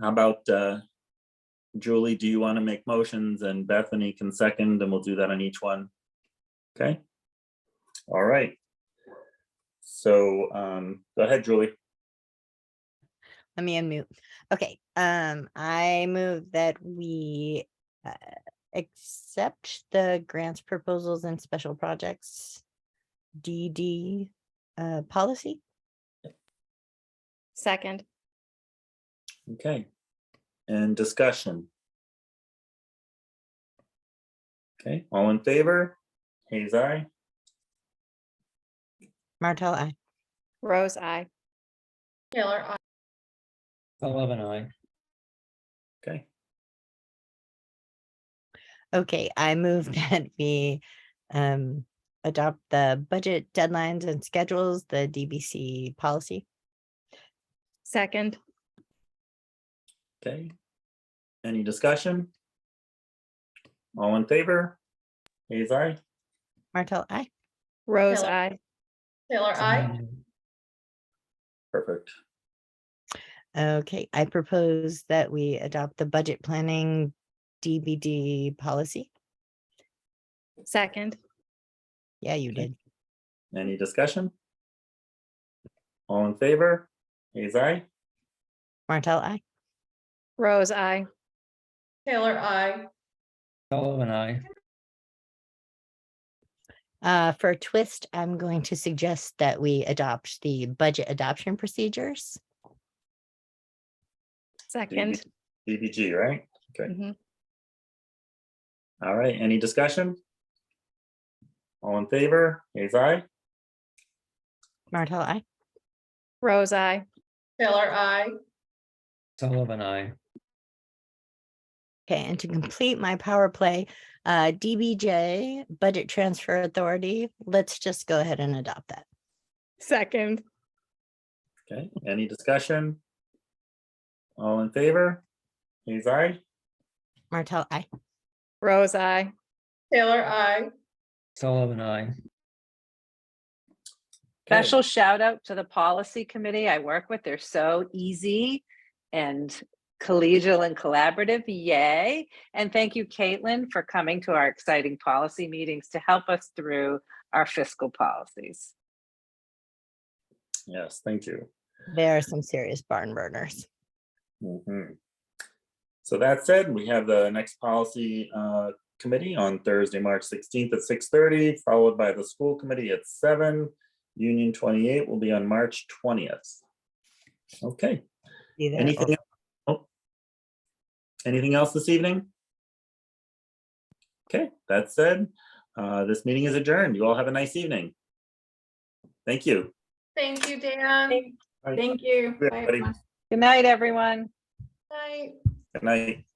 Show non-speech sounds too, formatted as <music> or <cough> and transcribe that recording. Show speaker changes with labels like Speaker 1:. Speaker 1: How about, uh, Julie, do you want to make motions and Bethany can second and we'll do that on each one? Okay? All right. So, um, go ahead, Julie.
Speaker 2: Let me unmute. Okay, um, I move that we uh, accept the grants proposals and special projects DD uh, policy.
Speaker 3: Second,
Speaker 1: Okay. And discussion. Okay, all in favor? Hayes, aye.
Speaker 2: Martell, I.
Speaker 3: Rose, I.
Speaker 4: Taylor, I.
Speaker 5: Sullivan, I.
Speaker 1: Okay,
Speaker 2: Okay, I move <laughs> that we um, adopt the budget deadlines and schedules, the DBC policy.
Speaker 3: Second,
Speaker 1: okay. Any discussion? All in favor? Hayes, aye.
Speaker 2: Martell, I.
Speaker 3: Rose,
Speaker 4: Taylor.
Speaker 3: I.
Speaker 4: Taylor, I.
Speaker 1: Um, Perfect.
Speaker 2: Okay, I propose that we adopt the budget planning DBD policy.
Speaker 3: Second,
Speaker 2: Yeah, you
Speaker 1: Okay.
Speaker 2: did.
Speaker 1: Any discussion? All in favor? Hayes, aye.
Speaker 2: Martell, I.
Speaker 3: Rose, I.
Speaker 4: Taylor, I.
Speaker 5: Sullivan, I.
Speaker 2: Uh, for a twist, I'm going to suggest that we adopt the budget adoption procedures.
Speaker 3: Second,
Speaker 1: DBG, right? Okay.
Speaker 3: Mhm.
Speaker 1: All right, any discussion? All in favor? Hayes, aye.
Speaker 2: Martell, I.
Speaker 3: Rose, I.
Speaker 4: Taylor, I.
Speaker 5: Sullivan, I.
Speaker 2: Okay, and to complete my power play, uh, DBJ, Budget Transfer Authority, let's just go ahead and adopt that.
Speaker 3: Second,
Speaker 1: Okay, any discussion? All in favor? Hayes, aye.
Speaker 2: Martell, I.
Speaker 3: Rose, I.
Speaker 4: Taylor, I.
Speaker 5: Sullivan, I.
Speaker 1: Okay,
Speaker 6: Special shout out to the policy committee I work with. They're so easy and collegial and collaborative. Yay. And thank you, Caitlin, for coming to our exciting policy meetings to help us through our fiscal policies.
Speaker 1: Yes, thank you.
Speaker 2: There are some serious barn burners.
Speaker 1: Mhm. So that said, we have the next policy uh, committee on Thursday, March sixteenth at six thirty, followed by the school committee at seven. Union twenty-eight will be on March twentieth. Okay,
Speaker 2: See there?
Speaker 1: anything? oh. Anything else this evening? Okay, that said, uh, this meeting is adjourned. You all have a nice evening. Thank you.
Speaker 4: Thank you, Dan.
Speaker 1: Bye.
Speaker 4: Thank you.
Speaker 1: Yeah,
Speaker 4: Bye,
Speaker 1: buddy.
Speaker 4: everyone.
Speaker 6: Good night, everyone.
Speaker 4: Bye.
Speaker 1: Good night.